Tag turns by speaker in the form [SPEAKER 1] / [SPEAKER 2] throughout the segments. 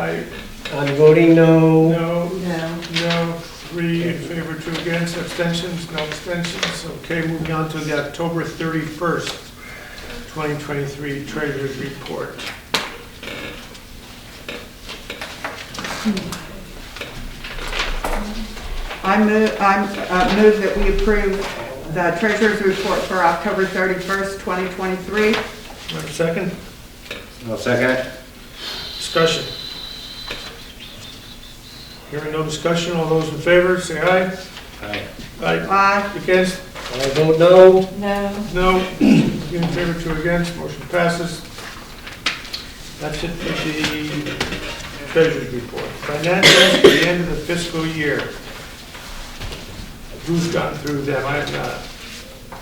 [SPEAKER 1] Aye.
[SPEAKER 2] I'm voting no.
[SPEAKER 3] No,
[SPEAKER 4] No.
[SPEAKER 3] no, three in favor, two against, abstentions, no abstentions. Okay, moving on to the October 31st, 2023 Treasurer's Report.
[SPEAKER 4] I move, I uh, move that we approve the treasurer's report for October 31st, 2023.
[SPEAKER 3] Do I have a Second,
[SPEAKER 1] I'll second it.
[SPEAKER 3] discussion. Hearing no discussion, all those in favor, say aye.
[SPEAKER 1] Aye.
[SPEAKER 3] Aye.
[SPEAKER 4] Aye.
[SPEAKER 3] Against?
[SPEAKER 2] I vote no.
[SPEAKER 4] No.
[SPEAKER 3] No. Three in favor, two against, motion passes. That's it for the Treasurer's Report. Financials at the end of the fiscal year. Who's gone through them? I have not.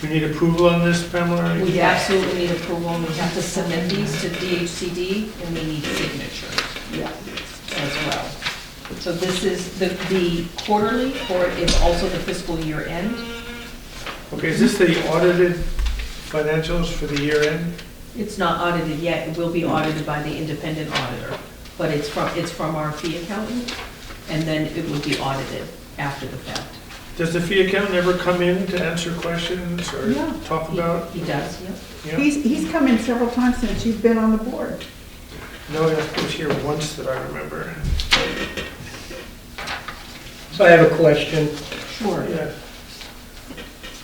[SPEAKER 3] Do you need approval on this, Pamela?
[SPEAKER 5] We absolutely need approval, and we have to submit these to DHCD, and we need signatures
[SPEAKER 4] Yeah.
[SPEAKER 5] as well. So this is, the the quarterly for it is also the fiscal year end.
[SPEAKER 3] Okay, is this the audited financials for the year end?
[SPEAKER 5] It's not audited yet, it will be audited by the independent auditor, but it's from, it's from our fee accountant, and then it will be audited after the fact.
[SPEAKER 3] Does the fee accountant ever come in to answer questions or
[SPEAKER 5] Yeah.
[SPEAKER 3] talk
[SPEAKER 5] He-
[SPEAKER 3] about?
[SPEAKER 5] He does, yeah.
[SPEAKER 3] yeah?
[SPEAKER 4] He's, he's come in several times since you've been on the board.
[SPEAKER 3] No, it was here once that I remember.
[SPEAKER 2] So I have a question,
[SPEAKER 5] Sure.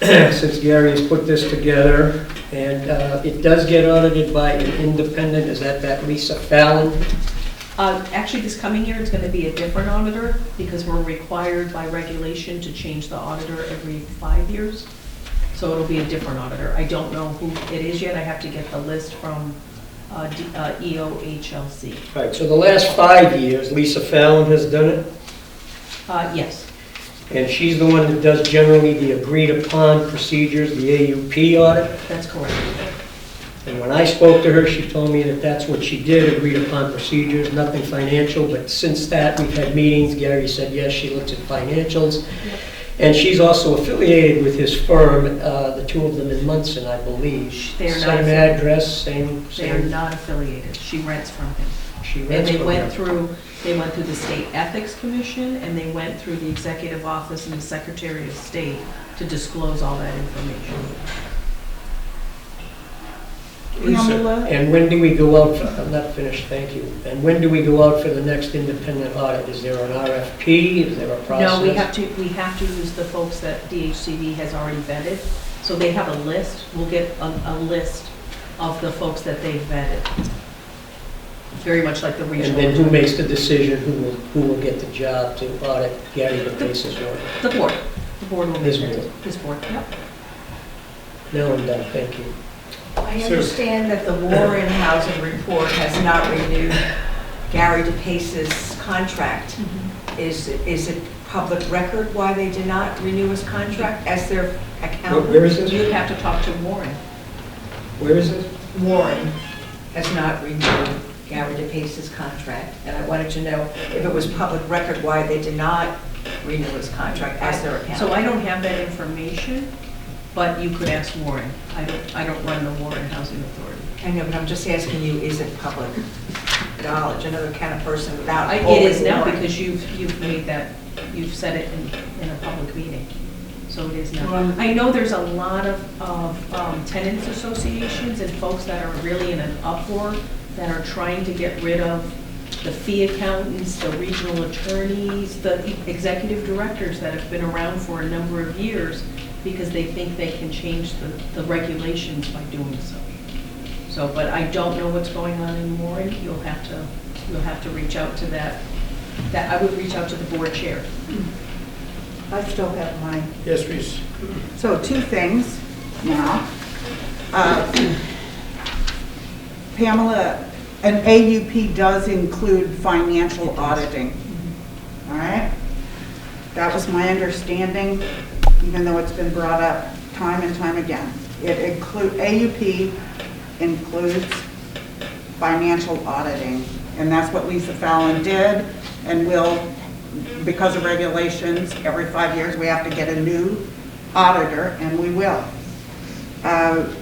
[SPEAKER 3] Yeah,
[SPEAKER 2] since Gary has put this together, and uh, it does get audited by an independent, is that that Lisa Fallon?
[SPEAKER 5] Uh, Actually, this coming year, it's going to be a different auditor because we're required by regulation to change the auditor every five years. So it'll be a different auditor. I don't know who it is yet. I have to get the list from uh, D- uh, EOHLC.
[SPEAKER 2] Right, so the last five years, Lisa Fallon has done it,
[SPEAKER 5] Uh, Yes,
[SPEAKER 2] and she's the one that does generally the agreed-upon procedures, the AUP audit.
[SPEAKER 5] that's correct.
[SPEAKER 2] And when I spoke to her, she told me that that's what she did, agreed-upon procedures, nothing financial. But since that, we've had meetings, Gary said, yes, she looks at financials. And she's also affiliated with his firm, uh, the two of them in Munson, I believe.
[SPEAKER 5] They are not-
[SPEAKER 2] Same address, same,
[SPEAKER 5] They are
[SPEAKER 2] same,
[SPEAKER 5] not affiliated. She rents from him.
[SPEAKER 2] she
[SPEAKER 5] And
[SPEAKER 2] rents
[SPEAKER 5] they
[SPEAKER 2] from
[SPEAKER 5] went
[SPEAKER 2] them.
[SPEAKER 5] through, they went through the State Ethics Commission and they went through the Executive Office and the Secretary of State to disclose all that information.
[SPEAKER 3] Lisa,
[SPEAKER 2] And when do we go out, for- I'm not finished, thank you. And when do we go out for the next independent audit? Is there an RFP? Is there a process?
[SPEAKER 5] No, we have to, we have to use the folks that DHCD has already vetted. So they have a list, we'll get a, a list of the folks that they've vetted. Very much like the
[SPEAKER 2] And
[SPEAKER 5] regional.
[SPEAKER 2] then who makes the decision, who will, who will get the job to audit Gary Batese's work?
[SPEAKER 5] The board, the board will
[SPEAKER 2] This
[SPEAKER 5] make
[SPEAKER 2] board.
[SPEAKER 5] that, this board, yep.
[SPEAKER 2] No, I'm done, thank you.
[SPEAKER 6] I understand that the Warren Housing Report has not renewed Gary DePace's contract.
[SPEAKER 5] Mm-hmm.
[SPEAKER 6] Is, is it public record why they did not renew his contract as their
[SPEAKER 2] Where- Where
[SPEAKER 6] accountant?
[SPEAKER 2] is this?
[SPEAKER 5] You'd have to talk to Warren.
[SPEAKER 2] Where is this?
[SPEAKER 6] Warren has not renewed Gary DePace's contract, and I wanted to know if it was public record why they did not renew his contract as their accountant.
[SPEAKER 5] So I don't have that information, but you could ask Warren. I don't, I don't run the Warren Housing Authority.
[SPEAKER 6] I know, but I'm just asking you, is it public knowledge? Another kind of person without.
[SPEAKER 5] I- It is now
[SPEAKER 6] Warren.
[SPEAKER 5] because you've, you've made that, you've said it in, in a public meeting, so it is now.
[SPEAKER 6] Well-
[SPEAKER 5] I know there's a lot of, of um, tenants associations and folks that are really in an uproar that are trying to get rid of the fee accountants, the regional attorneys, the e, executive directors that have been around for a number of years because they think they can change the, the regulations by doing so. So, but I don't know what's going on in Warren. You'll have to, you'll have to reach out to that, that, I would reach out to the board chair.
[SPEAKER 4] I still have mine.
[SPEAKER 3] yes, please.
[SPEAKER 4] So two things now. Uh, Pamela, an AUP does include financial auditing. All right? That was my understanding, even though it's been brought up time and time again. It include, AUP includes financial auditing, and that's what Lisa Fallon did, and will, because of regulations, every five years, we have to get a new auditor, and we will. Uh,